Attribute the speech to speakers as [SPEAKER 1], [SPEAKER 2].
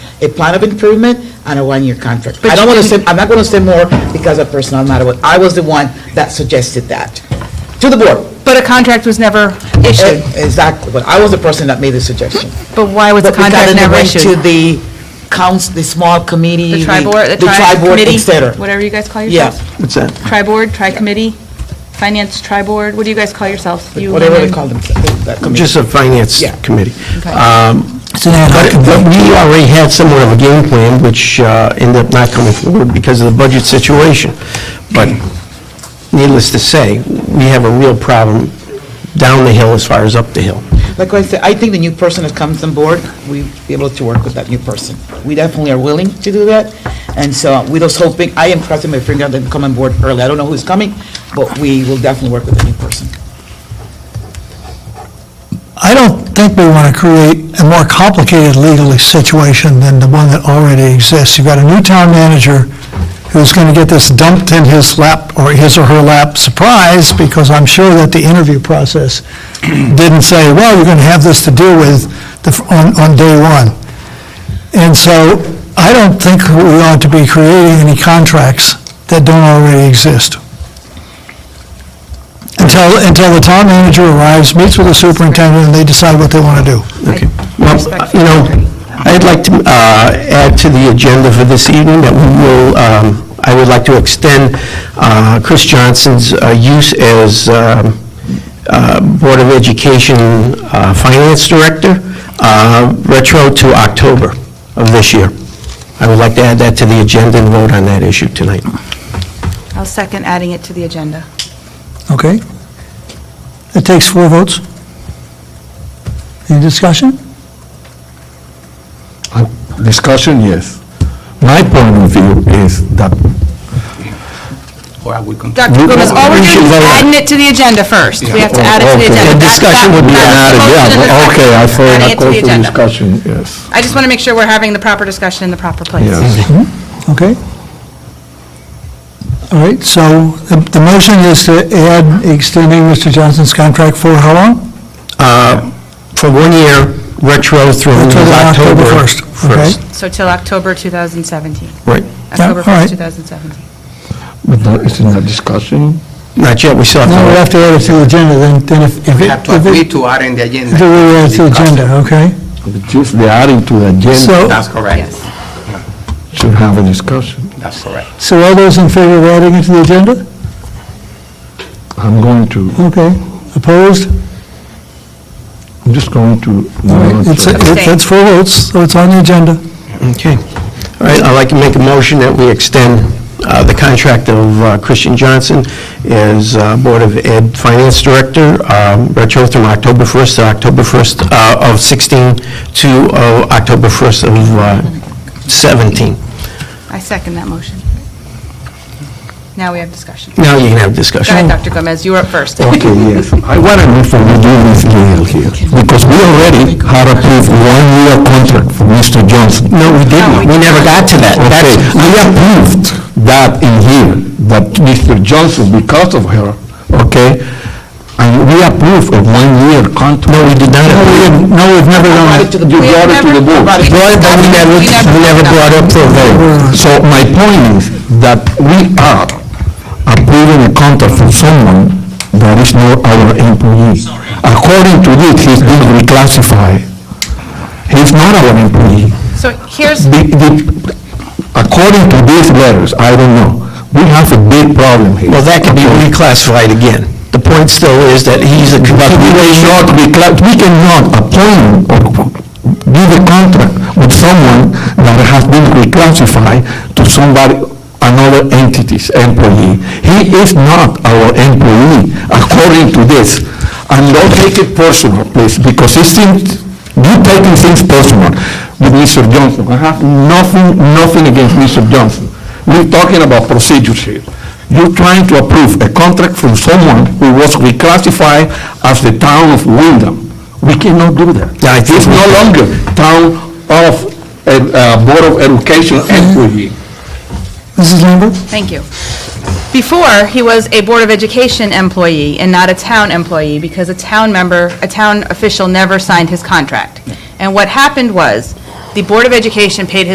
[SPEAKER 1] a plan of improvement and a one-year contract. I don't want to say, I'm not going to say more because of personal matter, but I was the one that suggested that to the board.
[SPEAKER 2] But a contract was never
[SPEAKER 1] Eh,
[SPEAKER 2] issued.
[SPEAKER 1] Exactly, but I was the person that made the suggestion.
[SPEAKER 2] But why was the
[SPEAKER 1] But we got
[SPEAKER 2] contract
[SPEAKER 1] it
[SPEAKER 2] never
[SPEAKER 1] went To
[SPEAKER 2] issued?
[SPEAKER 1] the council, the small committee.
[SPEAKER 2] The tri board, the
[SPEAKER 1] tri
[SPEAKER 2] tri
[SPEAKER 1] board, et
[SPEAKER 2] committee?
[SPEAKER 1] cetera.
[SPEAKER 2] Whatever you guys call
[SPEAKER 1] Yeah,
[SPEAKER 2] yourselves?
[SPEAKER 3] What's that?
[SPEAKER 2] Tri-board, tri-committee, finance tri-board, what do you guys call yourselves? You,
[SPEAKER 1] whatever they
[SPEAKER 2] Lyndon?
[SPEAKER 1] call them, that committee.
[SPEAKER 3] Just a finance
[SPEAKER 1] Yeah.
[SPEAKER 3] committee.
[SPEAKER 2] Okay.
[SPEAKER 3] Um,
[SPEAKER 4] So now,
[SPEAKER 3] But but we already had somewhat of a game plan, which uh, ended up not coming forward because of the budget situation. But needless to say, we have a real problem down the hill as far as up the hill.
[SPEAKER 1] Like I said, I think the new person that comes on board, we'll be able to work with that new person. We definitely are willing to do that, and so we're just hoping, I am crossing my finger that they come on board early. I don't know who's coming, but we will definitely work with the new person.
[SPEAKER 4] I don't think we want to create a more complicated legal situation than the one that already exists. You've got a new town manager who's going to get this dumped in his lap, or his or her lap, surprise, because I'm sure that the interview process didn't say, well, you're going to have this to deal with the- on, on day one. And so I don't think we ought to be creating any contracts that don't already exist. Until, until the town manager arrives, meets with the superintendent, and they decide what they want to do.
[SPEAKER 3] Okay. Well, you know, I'd like to uh, add to the agenda for this evening that we will, um, I would like to extend uh, Chris Johnson's uh, use as um, uh, Board of Education uh, Finance Director uh, retro to October of this year. I would like to add that to the agenda and vote on that issue tonight.
[SPEAKER 2] I'll second adding it to the agenda.
[SPEAKER 4] Okay. It takes four votes. Any discussion?
[SPEAKER 5] Uh, Discussion, yes. My point of view is that
[SPEAKER 2] Dr. Gomez, all we're doing is adding it to the agenda first. We have to add it to the
[SPEAKER 5] Okay.
[SPEAKER 2] agenda.
[SPEAKER 5] The
[SPEAKER 2] discussion would be
[SPEAKER 5] added, yeah, okay, I thought that goes for discussion, yes,
[SPEAKER 2] I just want to make sure we're having the proper discussion in the proper place.
[SPEAKER 5] yes.
[SPEAKER 4] Hmm? Okay. All right, so the the motion is to add extending Mr. Johnson's contract for how long?
[SPEAKER 3] Uh, For one year, retro through
[SPEAKER 4] Until
[SPEAKER 3] October 1st.
[SPEAKER 4] Okay.
[SPEAKER 2] So till October 2017,
[SPEAKER 3] Right.
[SPEAKER 2] October
[SPEAKER 4] all right.
[SPEAKER 2] 1st, 2017.
[SPEAKER 5] But that is in the discussion.
[SPEAKER 3] Not yet, we still have to...
[SPEAKER 4] Now we have to add it to the agenda, then, then if, if
[SPEAKER 6] We
[SPEAKER 4] it-
[SPEAKER 6] have to
[SPEAKER 4] if
[SPEAKER 6] agree
[SPEAKER 4] it,
[SPEAKER 6] to add in the agenda.
[SPEAKER 4] do we add it to the agenda, okay?
[SPEAKER 5] Just the adding to the agenda
[SPEAKER 4] So,
[SPEAKER 6] That's correct,
[SPEAKER 2] Yes.
[SPEAKER 5] should have a discussion.
[SPEAKER 6] that's correct.
[SPEAKER 4] so all those in favor of adding it to the agenda?
[SPEAKER 5] I'm going to,
[SPEAKER 4] Okay. Opposed?
[SPEAKER 5] I'm just going to.
[SPEAKER 4] All right, it's, it's it's four votes, so it's on the agenda.
[SPEAKER 3] Okay. All right, I'd like to make a motion that we extend uh, the contract of uh, Christian Johnson as uh, Board of Ed Finance Director, um, retro from October 1st to October 1st uh, of 16 to uh, October 1st of uh, 17.
[SPEAKER 2] I second that motion. Now we have discussion. Go
[SPEAKER 3] Now you can
[SPEAKER 2] ahead,
[SPEAKER 3] have discussion.
[SPEAKER 2] Dr. Gomez, you were up first.
[SPEAKER 5] Okay, yes. I want to know from you this deal here, because we already had approved one-year contract for Mr. Johnson.
[SPEAKER 3] No, we didn't. We never got to that.
[SPEAKER 5] Okay,
[SPEAKER 3] That's-
[SPEAKER 5] we approved that in here, that Mr. Johnson, because of her, okay, and we approve of one-year contract. No, we did not. No, we've never done
[SPEAKER 1] brought it to the
[SPEAKER 5] You
[SPEAKER 1] board.
[SPEAKER 5] brought it to the board.
[SPEAKER 1] We
[SPEAKER 3] Brought it, but we never, Mm. we never brought up for vote.
[SPEAKER 5] So my point is that we are approving a contract for someone that is not our employee. According to this, he's being reclassified. He's not our employee.
[SPEAKER 2] So here's,
[SPEAKER 5] The- the- According to these letters, I don't know, we have a big problem here.
[SPEAKER 3] Well, that could be reclassified again. The point still is that he's a
[SPEAKER 5] But we cannot, recla- we cannot appoint or give a contract with someone that has been reclassified to somebody, another entity's employee. He is not our employee, according to this. And don't take it personal, please, because it seems, you taking things personal with Mr. Johnson. I have nothing, nothing against Mr. Johnson. We're talking about procedures here. You're trying to approve a contract from someone who was reclassified as the town of Wyndham. We cannot do that.
[SPEAKER 3] Yeah, I think
[SPEAKER 5] It's
[SPEAKER 3] we-
[SPEAKER 5] no longer town of, uh, uh, Board of Education employee.
[SPEAKER 4] Mrs. Lambert?
[SPEAKER 2] thank you. Before, he was a Board of Education employee and not a town employee because a town member, a town official never signed his contract. And what happened was, the Board of Education paid his